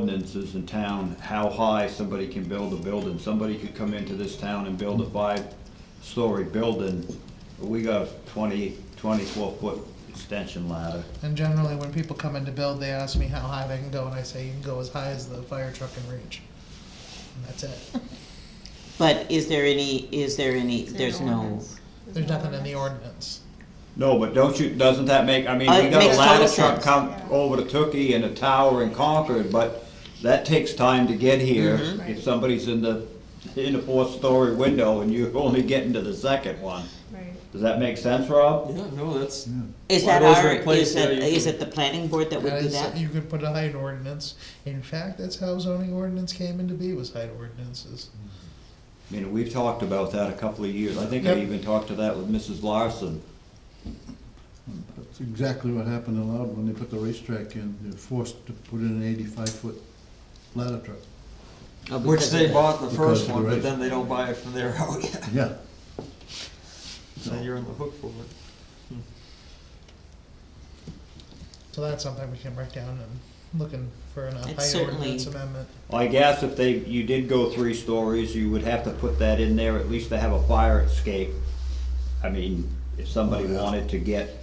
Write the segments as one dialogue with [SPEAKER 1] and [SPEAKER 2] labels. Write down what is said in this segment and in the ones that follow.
[SPEAKER 1] ordinances in town, how high somebody can build a building. Somebody could come into this town and build a five-story building, but we got a 20, 24-foot extension ladder.
[SPEAKER 2] And generally, when people come in to build, they ask me how high they can go, and I say, you can go as high as the fire truck can reach. And that's it.
[SPEAKER 3] But is there any, is there any,
[SPEAKER 4] Is there
[SPEAKER 3] there's
[SPEAKER 4] an
[SPEAKER 3] no,
[SPEAKER 4] ordinance? Is
[SPEAKER 2] There's
[SPEAKER 4] there an
[SPEAKER 2] nothing in the
[SPEAKER 4] ordinance?
[SPEAKER 2] ordinance.
[SPEAKER 1] No, but don't you, doesn't that make, I mean,
[SPEAKER 3] Uh,
[SPEAKER 1] we
[SPEAKER 3] it
[SPEAKER 1] got a
[SPEAKER 3] makes
[SPEAKER 1] ladder
[SPEAKER 3] total
[SPEAKER 1] truck
[SPEAKER 3] sense.
[SPEAKER 1] come
[SPEAKER 4] Yeah.
[SPEAKER 1] over to Tookie and a tower in Concord, but that takes time to get here.
[SPEAKER 3] Mm-hmm.
[SPEAKER 4] Right.
[SPEAKER 1] If somebody's in the, in the fourth-story window and you're only getting to the second one.
[SPEAKER 4] Right.
[SPEAKER 1] Does that make sense, Rob?
[SPEAKER 5] Yeah, no, that's,
[SPEAKER 3] is
[SPEAKER 5] Well,
[SPEAKER 3] that
[SPEAKER 5] those are
[SPEAKER 3] our,
[SPEAKER 5] in place,
[SPEAKER 3] is
[SPEAKER 5] yeah,
[SPEAKER 3] that,
[SPEAKER 5] you
[SPEAKER 3] is
[SPEAKER 5] can-
[SPEAKER 3] it the planning board that would
[SPEAKER 2] That
[SPEAKER 3] do
[SPEAKER 2] is-
[SPEAKER 3] that?
[SPEAKER 2] You could put a height ordinance. In fact, that's how zoning ordinance came into be, was height ordinances.
[SPEAKER 1] I mean, we've talked about that a couple of years. I think I
[SPEAKER 2] Yep.
[SPEAKER 1] even talked to that with Mrs. Larson.
[SPEAKER 6] That's exactly what happened in Loudon when they put the racetrack in. They're forced to put in an eighty-five foot ladder truck.
[SPEAKER 3] Oh,
[SPEAKER 5] which
[SPEAKER 3] because
[SPEAKER 5] they
[SPEAKER 3] of-
[SPEAKER 5] bought the
[SPEAKER 6] Because of
[SPEAKER 5] first
[SPEAKER 6] the
[SPEAKER 5] one, but
[SPEAKER 6] rate.
[SPEAKER 5] then they don't buy it from there Oh, out yet,
[SPEAKER 6] Yeah.
[SPEAKER 5] so you're on the hook for it.
[SPEAKER 2] So that's something we can write down and looking for an
[SPEAKER 3] It's
[SPEAKER 2] height
[SPEAKER 3] certainly-
[SPEAKER 2] ordinance amendment.
[SPEAKER 1] I guess if they, you did go three stories, you would have to put that in there, at least to have a fire escape. I mean, if somebody wanted to get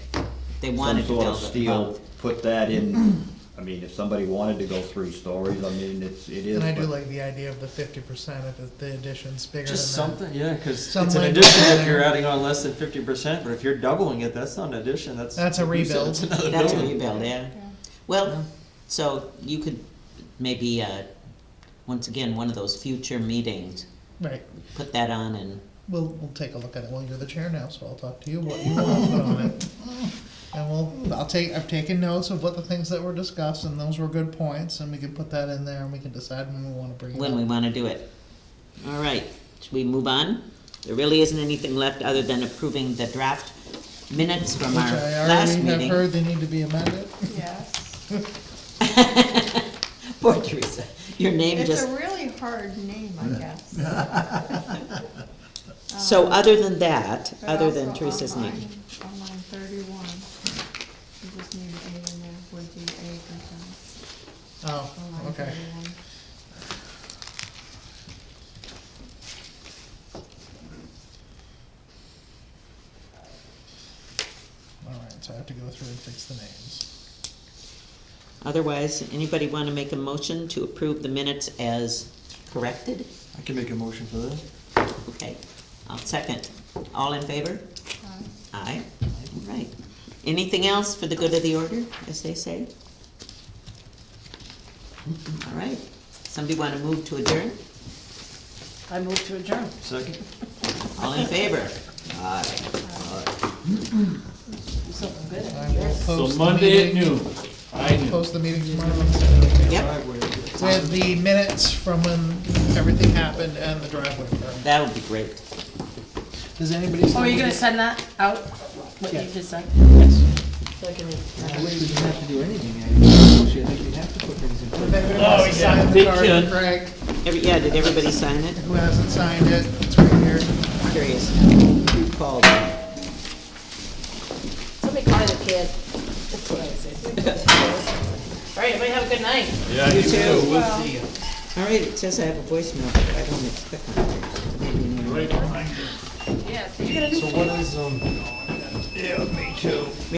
[SPEAKER 3] They
[SPEAKER 1] some
[SPEAKER 3] wanted to
[SPEAKER 1] sort of
[SPEAKER 3] build it
[SPEAKER 1] steel,
[SPEAKER 3] above.
[SPEAKER 1] put that in, I mean, if somebody wanted to go three stories, I mean, it's, it is.
[SPEAKER 2] And I do
[SPEAKER 1] but-
[SPEAKER 2] like the idea of the fifty percent if it- the addition's bigger than that.
[SPEAKER 5] Just something, yeah, cause
[SPEAKER 2] Some
[SPEAKER 5] it's an
[SPEAKER 2] language
[SPEAKER 5] addition
[SPEAKER 2] in
[SPEAKER 5] if you're
[SPEAKER 2] there.
[SPEAKER 5] adding on less than fifty percent, but if you're doubling it, that's not an addition, that's.
[SPEAKER 2] That's a
[SPEAKER 5] like you said,
[SPEAKER 2] rebuild.
[SPEAKER 5] it's another
[SPEAKER 3] That's a
[SPEAKER 5] building.
[SPEAKER 3] rebuild, yeah.
[SPEAKER 4] Yeah.
[SPEAKER 2] Yeah.
[SPEAKER 3] Well, so you could maybe, uh, once again, one of those future meetings,
[SPEAKER 2] Right.
[SPEAKER 3] put that on and,
[SPEAKER 2] We'll, we'll take a look at it. Well, you're the chair now, so I'll talk to you what you want to put on it. And we'll, I'll take, I've taken notes of what the things that were discussed and those were good points and we can put that in there and we can decide when we wanna bring it
[SPEAKER 3] when we
[SPEAKER 2] up.
[SPEAKER 3] wanna do it. All right, should we move on? There really isn't anything left other than approving the draft minutes from
[SPEAKER 2] Which
[SPEAKER 3] our
[SPEAKER 2] I
[SPEAKER 3] last
[SPEAKER 2] already
[SPEAKER 3] meeting.
[SPEAKER 2] have heard they need to be amended.
[SPEAKER 4] Yes.
[SPEAKER 3] Poor Teresa, your name
[SPEAKER 4] It's
[SPEAKER 3] just
[SPEAKER 4] a really hard name, I guess.
[SPEAKER 3] So other than that,
[SPEAKER 4] But
[SPEAKER 3] other than
[SPEAKER 4] also
[SPEAKER 3] Teresa's
[SPEAKER 4] on
[SPEAKER 3] name,
[SPEAKER 4] line- On line thirty-one, you just need an A in there, would you A concern?
[SPEAKER 2] Oh,
[SPEAKER 4] On line
[SPEAKER 2] okay.
[SPEAKER 4] 31.
[SPEAKER 2] Alright, so I have to go through and fix the names.
[SPEAKER 3] otherwise, anybody wanna make a motion to approve the minutes as corrected?
[SPEAKER 5] I can make a motion for that.
[SPEAKER 3] Okay, I'll second. All in favor? Aye,
[SPEAKER 4] Aye.
[SPEAKER 3] all right. Anything else for the good of the order, as they say? All right, somebody wanna move to adjourn?
[SPEAKER 7] I move to adjourn.
[SPEAKER 5] Second?
[SPEAKER 3] All in favor? Aye.
[SPEAKER 7] Do something good.
[SPEAKER 2] I will
[SPEAKER 8] So
[SPEAKER 2] post the
[SPEAKER 8] Monday at
[SPEAKER 2] meeting-
[SPEAKER 8] noon, I knew.
[SPEAKER 2] Post the meeting tomorrow
[SPEAKER 3] Yep,
[SPEAKER 5] Driveway, yeah.
[SPEAKER 2] with the minutes from when everything happened and the driveway permit.
[SPEAKER 3] that would be great.
[SPEAKER 2] Does anybody?
[SPEAKER 7] Oh, are you gonna send that out, what you just said?
[SPEAKER 5] That way you don't have to do anything, I think, I think you'd have to put things in.
[SPEAKER 2] If
[SPEAKER 8] Oh,
[SPEAKER 2] anybody wants to sign the
[SPEAKER 8] Big
[SPEAKER 2] card
[SPEAKER 8] kid.
[SPEAKER 2] for Craig,
[SPEAKER 3] Every, yeah, did everybody sign it?
[SPEAKER 2] who hasn't signed it, it's right here.
[SPEAKER 3] Curious now, who called
[SPEAKER 7] Somebody call the kid. That's what I said. All right, everybody have a good night.
[SPEAKER 3] You too. All right, it says I have a voicemail, but I don't expect one.
[SPEAKER 7] Yeah,
[SPEAKER 5] So what is, um.